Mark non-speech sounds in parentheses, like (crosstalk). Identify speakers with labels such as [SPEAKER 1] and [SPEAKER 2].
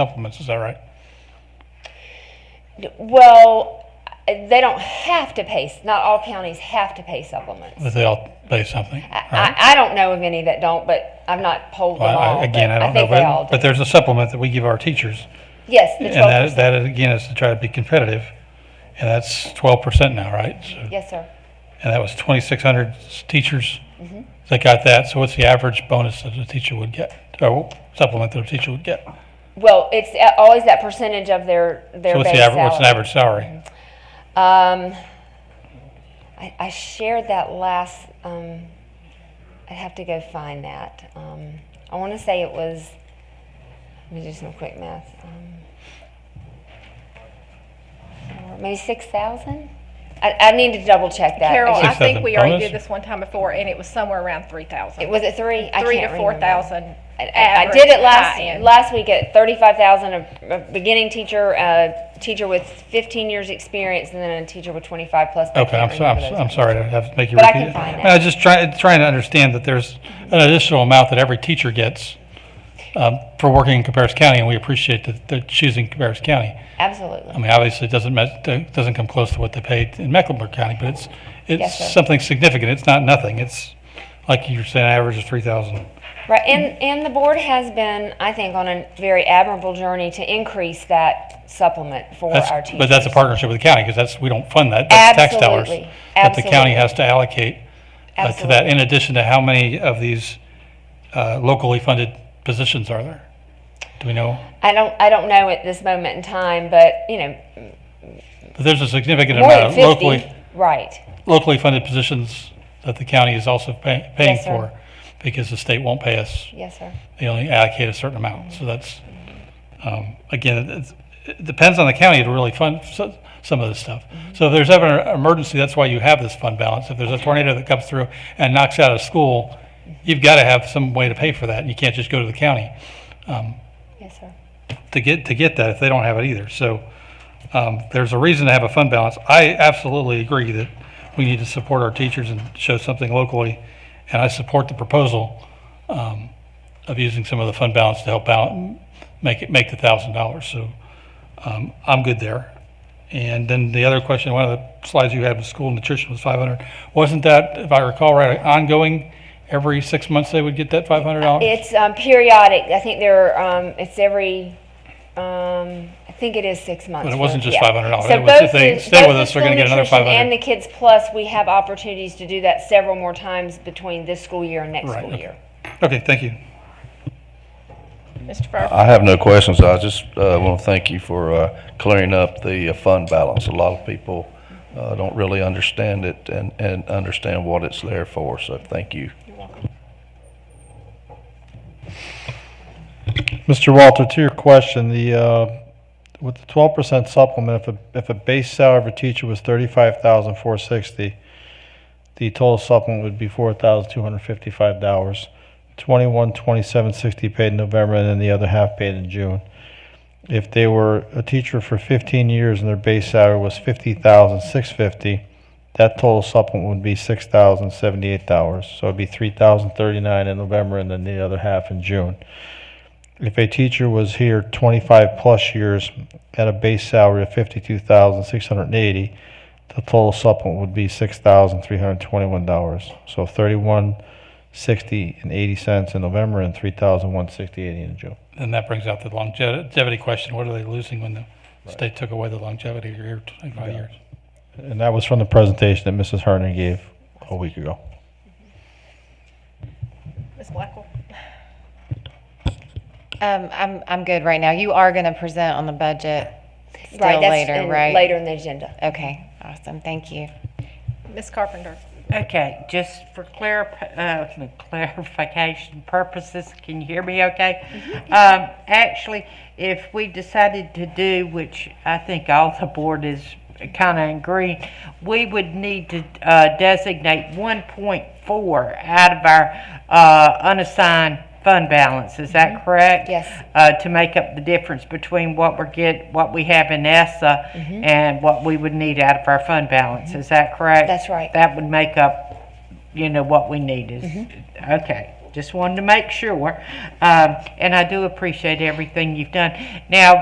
[SPEAKER 1] supplements, is that right?
[SPEAKER 2] Well, they don't have to pay, not all counties have to pay supplements.
[SPEAKER 1] That they all pay something, right?
[SPEAKER 2] I, I don't know of any that don't, but I've not polled them
[SPEAKER 1] Uh-huh. Well,
[SPEAKER 2] all.
[SPEAKER 1] I- Again,
[SPEAKER 2] but
[SPEAKER 1] I don't know,
[SPEAKER 2] think they all
[SPEAKER 1] but,
[SPEAKER 2] do.
[SPEAKER 1] but there's a supplement that we give our teachers.
[SPEAKER 2] Yes, the
[SPEAKER 1] And
[SPEAKER 2] twelve
[SPEAKER 1] that,
[SPEAKER 2] percent.
[SPEAKER 1] that is- again is to try to be competitive. And that's twelve percent now, right? So-
[SPEAKER 2] Yes, sir.
[SPEAKER 1] And that was twenty-six hundred teachers
[SPEAKER 2] Mm-hmm.
[SPEAKER 1] that got that. So what's the average bonus that a teacher would get? Or supplement that a teacher would get?
[SPEAKER 2] Well, it's a- always that percentage of their, their
[SPEAKER 1] So what's
[SPEAKER 2] base
[SPEAKER 1] the average, what's an
[SPEAKER 2] salary. Mm-hmm.
[SPEAKER 1] average salary?
[SPEAKER 2] Um, I, I shared that last, um, I'd have to go find that. Um, I want to say it was, let me do some quick math. Um, four- maybe 6,000? I, I need to double check that.
[SPEAKER 3] Carol, I
[SPEAKER 1] Six
[SPEAKER 3] think
[SPEAKER 1] thousand
[SPEAKER 3] we already
[SPEAKER 1] bonus?
[SPEAKER 3] did this one time before, and it was somewhere around three thousand.
[SPEAKER 2] Was it three? I
[SPEAKER 3] Three
[SPEAKER 2] can't
[SPEAKER 3] to four
[SPEAKER 2] remember.
[SPEAKER 3] thousand.
[SPEAKER 2] I- I, I did it last, last week at thirty-five thousand, a, a beginning teacher, a teacher with fifteen years experience, and then a teacher with twenty-five plus. I
[SPEAKER 1] Okay,
[SPEAKER 2] can't
[SPEAKER 1] I'm, so- I'm,
[SPEAKER 2] remember
[SPEAKER 1] so-
[SPEAKER 2] those
[SPEAKER 1] I'm
[SPEAKER 2] numbers.
[SPEAKER 1] sorry to have to make you
[SPEAKER 2] But I
[SPEAKER 1] repeat
[SPEAKER 2] can
[SPEAKER 1] it.
[SPEAKER 2] find that.
[SPEAKER 1] I was just trying, trying to understand that there's an additional amount that every teacher gets um, for working in Cabarrus County, and we appreciate that they're choosing Cabarrus County. I
[SPEAKER 2] Absolutely.
[SPEAKER 1] mean, obviously, it doesn't, met- it doesn't come close to what they paid in Mecklenburg County, but it's,
[SPEAKER 2] Yes, sir.
[SPEAKER 1] it's something significant. It's not nothing. It's, like you were saying, average is 3,000.
[SPEAKER 2] Right, and, and the board has been, I think, on a very admirable journey to increase that supplement for
[SPEAKER 1] That's-
[SPEAKER 2] our teachers.
[SPEAKER 1] But that's a partnership with the county, because that's, we don't fund that. That's tax dollars
[SPEAKER 2] Absolutely.
[SPEAKER 1] that the county
[SPEAKER 2] Absolutely.
[SPEAKER 1] has to allocate uh, to that, in addition to how many of these uh, locally funded positions are there? Do we know?
[SPEAKER 2] I don't, I don't know at this moment in time, but, you know,
[SPEAKER 1] But there's a significant
[SPEAKER 2] more than
[SPEAKER 1] amount of
[SPEAKER 2] fifty,
[SPEAKER 1] locally,
[SPEAKER 2] right.
[SPEAKER 1] locally funded positions that the county is also pay- paying
[SPEAKER 2] Yes, sir.
[SPEAKER 1] for, because the state won't pay us
[SPEAKER 2] Yes, sir.
[SPEAKER 1] they only allocate a certain amount. So that's, um, again, it's- it depends on the county to really fund so- some of this stuff. So if there's ever an emergency, that's why you have this fund balance. If there's a tornado that comes through and knocks out a school, you've got to have some way to pay for that. and You can't just go to the county
[SPEAKER 2] Yes, sir.
[SPEAKER 1] to get, to get that if they don't have it either. So um, there's a reason to have a fund balance. I absolutely agree that we need to support our teachers and show something locally. And I support the proposal um, of using some of the fund balance to help out and make it, make the thousand dollars. So um, I'm good there. And then the other question, one of the slides you had was school nutrition was 500. Wasn't that, if I recall right, ongoing? Every six months they would get that $500?
[SPEAKER 2] It's um, periodic. I think there, are, um, it's every, um, I think it is six months.
[SPEAKER 1] But it
[SPEAKER 2] for-
[SPEAKER 1] wasn't just
[SPEAKER 2] yeah.
[SPEAKER 1] $500.
[SPEAKER 2] So
[SPEAKER 1] It was- if
[SPEAKER 2] both
[SPEAKER 1] they
[SPEAKER 2] the-
[SPEAKER 1] stay
[SPEAKER 2] both
[SPEAKER 1] with
[SPEAKER 2] the
[SPEAKER 1] us, they're gonna
[SPEAKER 2] school
[SPEAKER 1] get another
[SPEAKER 2] nutrition
[SPEAKER 1] $500.
[SPEAKER 2] And the Kids Plus, we have opportunities to do that several more times between this school year and next
[SPEAKER 1] Right,
[SPEAKER 2] school
[SPEAKER 1] okay.
[SPEAKER 2] year.
[SPEAKER 1] Okay, thank you.
[SPEAKER 3] Mr. Furphy,
[SPEAKER 4] I have no questions. I just uh, want to thank you for uh, clearing up the uh, fund balance. A lot of people uh, don't really understand it and, and understand what it's there for, so thank you.
[SPEAKER 5] Mr. Walter, to your question, the, uh, with the twelve percent supplement, if a, if a base salary of a teacher was thirty-five thousand four sixty, the total supplement would be four thousand two hundred fifty-five dollars. Twenty-one, twenty-seven, sixty paid in November, and then the other half paid in June. If they were a teacher for fifteen years and their base salary was fifty thousand six fifty, that total supplement would be six thousand seventy-eight dollars. So it'd be three thousand thirty-nine in November and then the other half in June if a teacher was here 25 plus years at a base salary of 52,680, the total supplement would be $6,321. So 3160 and 80 cents in November and 3,168 in June.
[SPEAKER 1] And that brings out the longevity question. What are they losing when the state took away the longevity year, 25 years?
[SPEAKER 5] And that was from the presentation that Mrs. Herndon gave a week ago.
[SPEAKER 3] Ms. Blackwell.
[SPEAKER 6] Um, I'm, I'm good right now. You are going to present on the budget still
[SPEAKER 2] Right, that's
[SPEAKER 6] later,
[SPEAKER 2] in-
[SPEAKER 6] right?
[SPEAKER 2] Later in the agenda.
[SPEAKER 6] Okay, awesome. Thank you.
[SPEAKER 3] Ms. Carpenter.
[SPEAKER 7] Okay, just for clar- uh, (laughs) clarification purposes, can you hear me okay? Um, actually, if we decided to do, which I think all the board is kind of agreeing, we would need to uh, designate 1.4 out of our uh, unassigned fund balance. Is that correct?
[SPEAKER 2] Yes.
[SPEAKER 7] uh, to make up the difference between what we're get, what we have in ESSA and what we would need out of our fund balance. Is that correct?
[SPEAKER 2] That's right.
[SPEAKER 7] That would make up, you know, what we need is, okay. Just wanted to make sure. Um, and I do appreciate everything you've done. Now,